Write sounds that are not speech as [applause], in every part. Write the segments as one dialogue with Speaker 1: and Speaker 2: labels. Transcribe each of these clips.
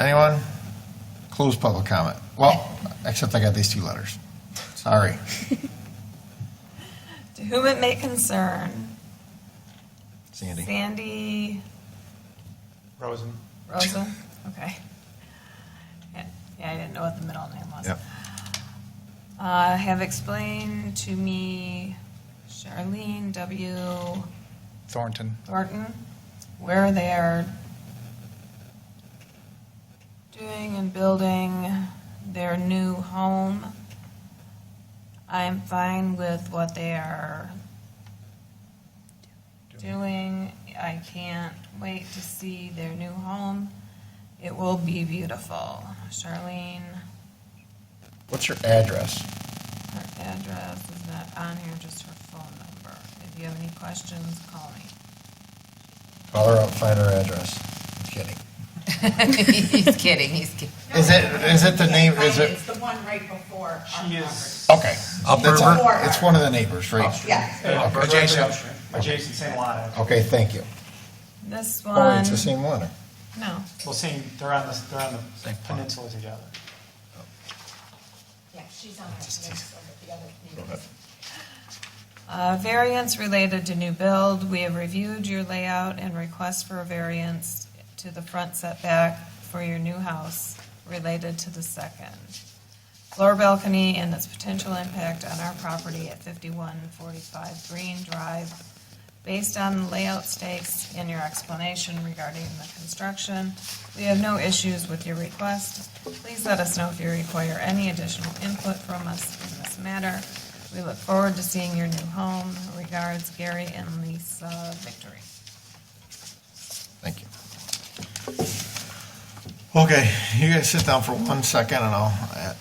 Speaker 1: Anyone? Close public comment. Well, except I got these two letters. Sorry.
Speaker 2: To whom it may concern,
Speaker 1: Sandy.
Speaker 2: Sandy
Speaker 3: Rosen.
Speaker 2: Rosa, okay. Yeah, yeah, I didn't know what the middle name was.
Speaker 1: Yep.
Speaker 2: Uh, have explained to me Charlene W.
Speaker 3: Thornton.
Speaker 2: Thornton where they are doing and building their new home. I'm fine with what they are doing. I can't wait to see their new home. It will be beautiful. Charlene,
Speaker 1: What's your address?
Speaker 2: her address is not on here, just her phone number. If you have any questions, call me.
Speaker 1: Call her up, find her address. I'm kidding.
Speaker 4: [laughs] he's kidding. He's kidding.
Speaker 1: Is it, is it the name, is it,
Speaker 5: It's the one right before our
Speaker 3: She
Speaker 5: property.
Speaker 3: is
Speaker 1: okay. That's
Speaker 5: Upper-
Speaker 1: on- It's one of the neighbors, right?
Speaker 5: Yeah,
Speaker 3: adjacent, adjacent, same lot.
Speaker 1: Okay, thank you.
Speaker 2: This
Speaker 1: Oh,
Speaker 2: one,
Speaker 1: it's the same one.
Speaker 2: no.
Speaker 3: Well, same, they're on the, they're on the peninsula together.
Speaker 5: yeah, she's on our list over the other neighbors.
Speaker 2: Uh, Variance related to new build, we have reviewed your layout and request for a variance to the front setback for your new house related to the second floor balcony and its potential impact on our property at 5145 Green Drive. Based on the layout stakes and your explanation regarding the construction, we have no issues with your request. Please let us know if you require any additional input from us in this matter. We look forward to seeing your new home. Regards, Gary and Lisa Victory.
Speaker 1: Thank you. Okay, you guys sit down for one second and I'll. uh,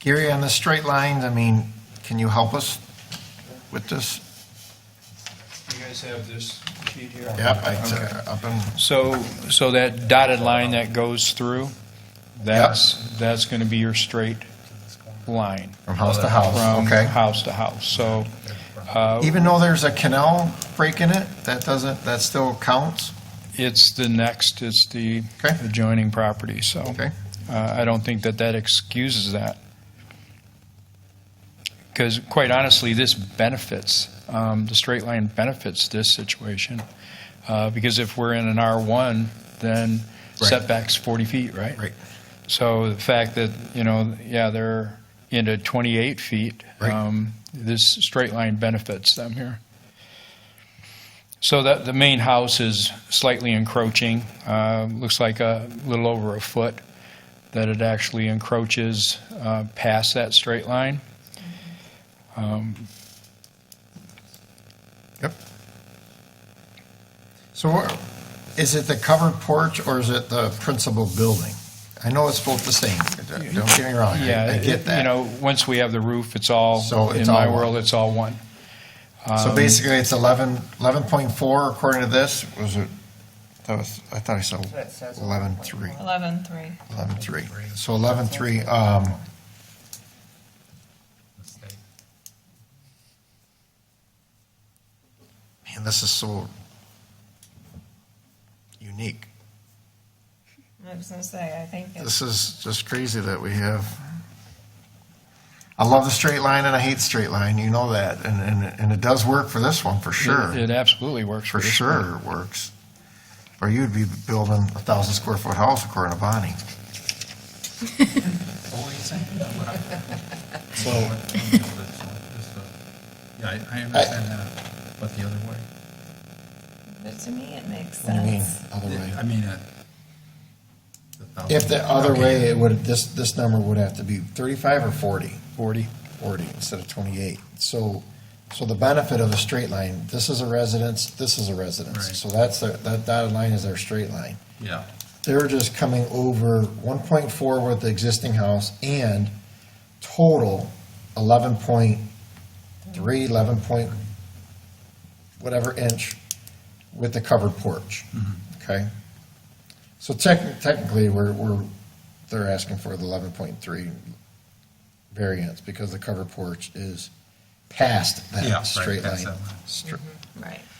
Speaker 1: Gary, on the straight lines, I mean, can you help us with this?
Speaker 6: You guys have this sheet here?
Speaker 1: Yep, I took
Speaker 6: Okay.
Speaker 1: it uh, up and,
Speaker 6: So, so that dotted line that goes through, that's, that's going to be your straight line.
Speaker 1: from house to house,
Speaker 6: From
Speaker 1: okay?
Speaker 6: house to house. So, uh,
Speaker 1: Even though there's a canal break in it, that doesn't, that still counts?
Speaker 6: it's the next, it's the
Speaker 1: Okay.
Speaker 6: adjoining property, so.
Speaker 1: Okay.
Speaker 6: Uh, I don't think that that excuses that. Because quite honestly, this benefits, um, the straight line benefits this situation. Uh, Because if we're in an R1, then
Speaker 1: Right.
Speaker 6: setback's 40 feet, right?
Speaker 1: Right.
Speaker 6: So the fact that, you know, yeah, they're into 28 feet,
Speaker 1: Right.
Speaker 6: um, this straight line benefits them here. So that, the main house is slightly encroaching, uh, looks like a little over a foot, that it actually encroaches uh, past that straight line.
Speaker 1: Yep. So where- is it the covered porch or is it the principal building? I know it's both the same, don't get me wrong, I
Speaker 6: Yeah,
Speaker 1: I
Speaker 6: it-
Speaker 1: get that.
Speaker 6: You know, once we have the roof, it's all,
Speaker 1: So it's
Speaker 6: in my
Speaker 1: all one.
Speaker 6: world, it's all one. um,
Speaker 1: So basically, it's 11, 11.4 according to this, was it, that was, I thought I saw 11.3,
Speaker 2: 11-3.
Speaker 1: 11.3. So 11.3, um, man, this is so unique.
Speaker 2: I was gonna say, I think it's,
Speaker 1: This is just crazy that we have. I love the straight line and I hate straight line, you know that, and, and, and it does work for this one, for sure.
Speaker 6: It it absolutely works for
Speaker 1: for
Speaker 6: this one.
Speaker 1: sure it works. Or you'd be building a thousand square foot house according to Bonnie. [laughs]
Speaker 7: So. um, Yeah, I, I understand that, but the other way.
Speaker 2: but to me, it makes
Speaker 1: What do you mean,
Speaker 2: sense.
Speaker 1: other way?
Speaker 7: I mean, uh, thousand-
Speaker 1: If the other way, it would, this, this number would have to be thirty-five or forty? Forty. Forty instead of twenty-eight. So, so the benefit of a straight line, this is a residence, this is a
Speaker 7: Right.
Speaker 1: residence. So that's, their- that dotted line is their straight line.
Speaker 7: Yeah,
Speaker 1: They're just coming over one point four with the existing house and total eleven point three, eleven point whatever inch with the covered porch.
Speaker 7: Mm-hmm.
Speaker 1: Okay? So tech, technically, we're, we're, they're asking for the eleven point three variance because the covered porch is past
Speaker 7: Yeah,
Speaker 1: that
Speaker 7: right,
Speaker 1: straight
Speaker 7: past
Speaker 1: line.
Speaker 7: that line.
Speaker 1: Stra-
Speaker 2: Right.